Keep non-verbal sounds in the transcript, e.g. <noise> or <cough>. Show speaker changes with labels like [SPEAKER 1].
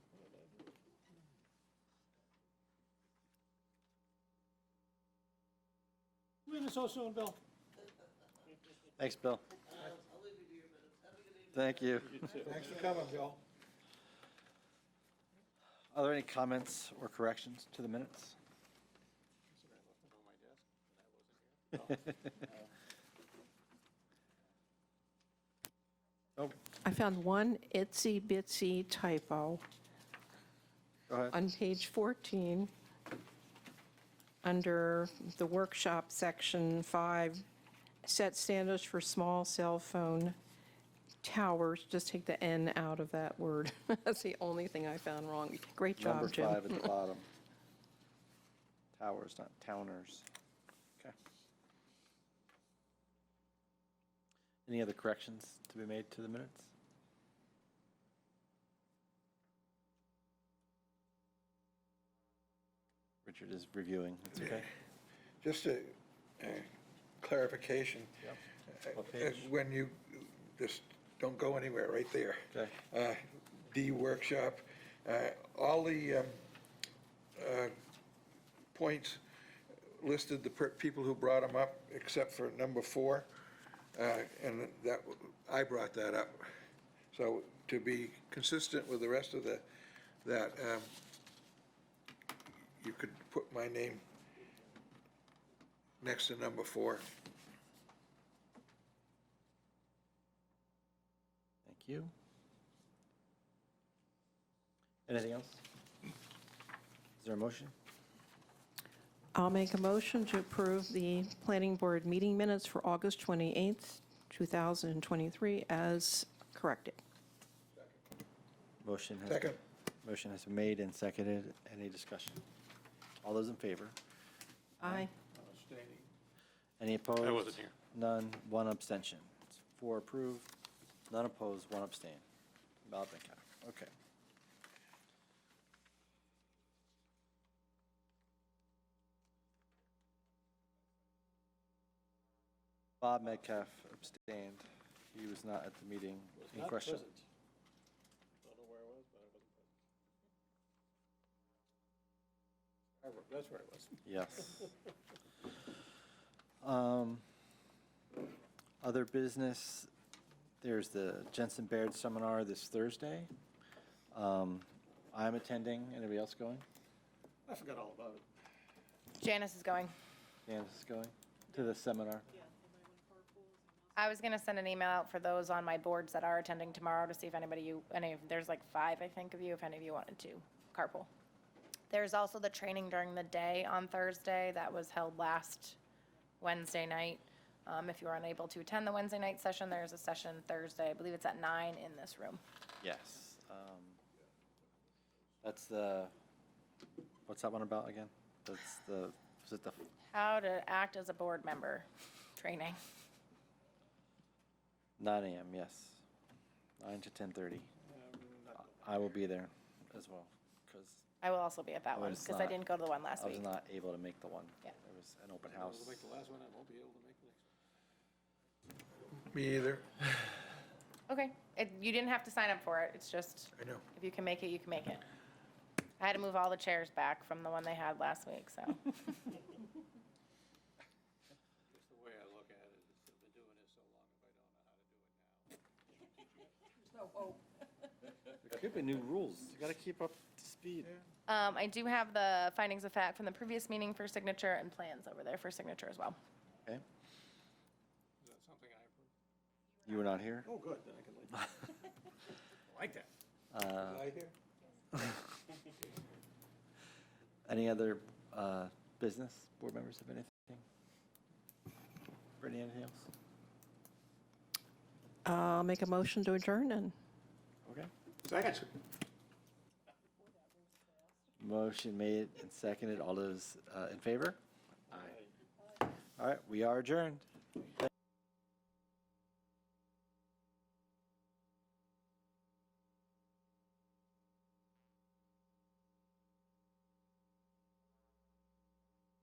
[SPEAKER 1] We in so soon, Bill?
[SPEAKER 2] Thanks, Bill.
[SPEAKER 3] I'll, I'll leave you to your minutes. Have a good evening.
[SPEAKER 2] Thank you.
[SPEAKER 1] Thanks for coming, Bill.
[SPEAKER 2] Are there any comments or corrections to the minutes? Oh,
[SPEAKER 4] I found one itsy bitsy typo
[SPEAKER 2] go ahead.
[SPEAKER 4] on page 14, under the workshop section five, set standards for small cell phone towers, just take the N out of that word. <laughs> That's the only thing I found wrong. Great
[SPEAKER 2] Number
[SPEAKER 4] job, Jim.
[SPEAKER 2] five
[SPEAKER 4] <laughs>
[SPEAKER 2] at the bottom. Towers, not towners. Okay. Any other corrections to be made to the minutes? Richard is reviewing, it's okay.
[SPEAKER 5] Just a uh, clarification.
[SPEAKER 2] What
[SPEAKER 5] Uh,
[SPEAKER 2] page?
[SPEAKER 5] When you, just don't go anywhere, right there.
[SPEAKER 2] Okay.
[SPEAKER 5] Uh, D workshop, uh, all the um, uh, points listed, the per- people who brought them up, except for number four, uh, and that, I brought that up. So to be consistent with the rest of the, that, um, you could put my name next to number four.
[SPEAKER 2] Thank you. Anything else? Is there a motion?
[SPEAKER 4] I'll make a motion to approve the planning board meeting minutes for August 28th, 2023, as corrected.
[SPEAKER 2] Motion has.
[SPEAKER 5] Second.
[SPEAKER 2] Motion has been made and seconded. Any discussion? All those in favor?
[SPEAKER 4] Aye.
[SPEAKER 2] Any opposed?
[SPEAKER 6] I wasn't here.
[SPEAKER 2] None, one abstention. It's Four approved, none opposed, one abstain. Ballot that count. Okay. Bob Metcalf abstained. He was not at the meeting in question.
[SPEAKER 1] Don't know where I was, but I wasn't present. I wa- That's where I was. <laughs>
[SPEAKER 2] Yes. Um, Other business, there's the Jensen Baird Seminar this Thursday. Um, I'm attending. Anybody else going?
[SPEAKER 1] I forgot all about it.
[SPEAKER 7] Janice is going.
[SPEAKER 2] Janice is going to the seminar.
[SPEAKER 7] I was gonna send an email out for those on my boards that are attending tomorrow to see if anybody you, any, of- there's like five, I think, of you, if any of you wanted to carpool. There's also the training during the day on Thursday that was held last Wednesday night. Um, if you were unable to attend the Wednesday night session, there's a session Thursday, I believe it's at nine in this room.
[SPEAKER 2] Yes. um, That's the, what's that one about again? That's the, is it the,
[SPEAKER 7] How to act as a board member <laughs> training.
[SPEAKER 2] 9 AM, yes. 9 to 10:30. I will be there as well, because
[SPEAKER 7] I will also be at that
[SPEAKER 2] I
[SPEAKER 7] one,
[SPEAKER 2] was
[SPEAKER 7] because I
[SPEAKER 2] not-
[SPEAKER 7] didn't go to the one last
[SPEAKER 2] I
[SPEAKER 7] week.
[SPEAKER 2] was not able to make the one.
[SPEAKER 7] Yeah.
[SPEAKER 2] It was an open
[SPEAKER 1] I
[SPEAKER 2] house.
[SPEAKER 1] was like the last one, I won't be able to make the next
[SPEAKER 5] Me either.
[SPEAKER 7] Okay, it, you didn't have to sign up for it, it's just.
[SPEAKER 5] I know.
[SPEAKER 7] If you can make it, you can make it. I had to move all the chairs back from the one they had last week, so.
[SPEAKER 1] one. That's the way I look at it, is I've been doing this so long, if I don't know how to do it now.
[SPEAKER 2] There could be new rules. You gotta keep up to speed.
[SPEAKER 7] Um, I do have the findings of fact from the previous meeting for signature and plans over there for signature as well.
[SPEAKER 2] Okay,
[SPEAKER 1] Is that something I approve?
[SPEAKER 2] you were not here?
[SPEAKER 1] Oh, good, then I can leave. I Like that.
[SPEAKER 2] Uh,
[SPEAKER 5] I hear?
[SPEAKER 2] Any other uh, business? Board members have anything? Brittany, anything else?
[SPEAKER 4] I'll make a motion to adjourn and.
[SPEAKER 2] Okay.
[SPEAKER 1] Second.
[SPEAKER 2] Motion made and seconded. All those uh, in favor? Aye. All right, we are adjourned.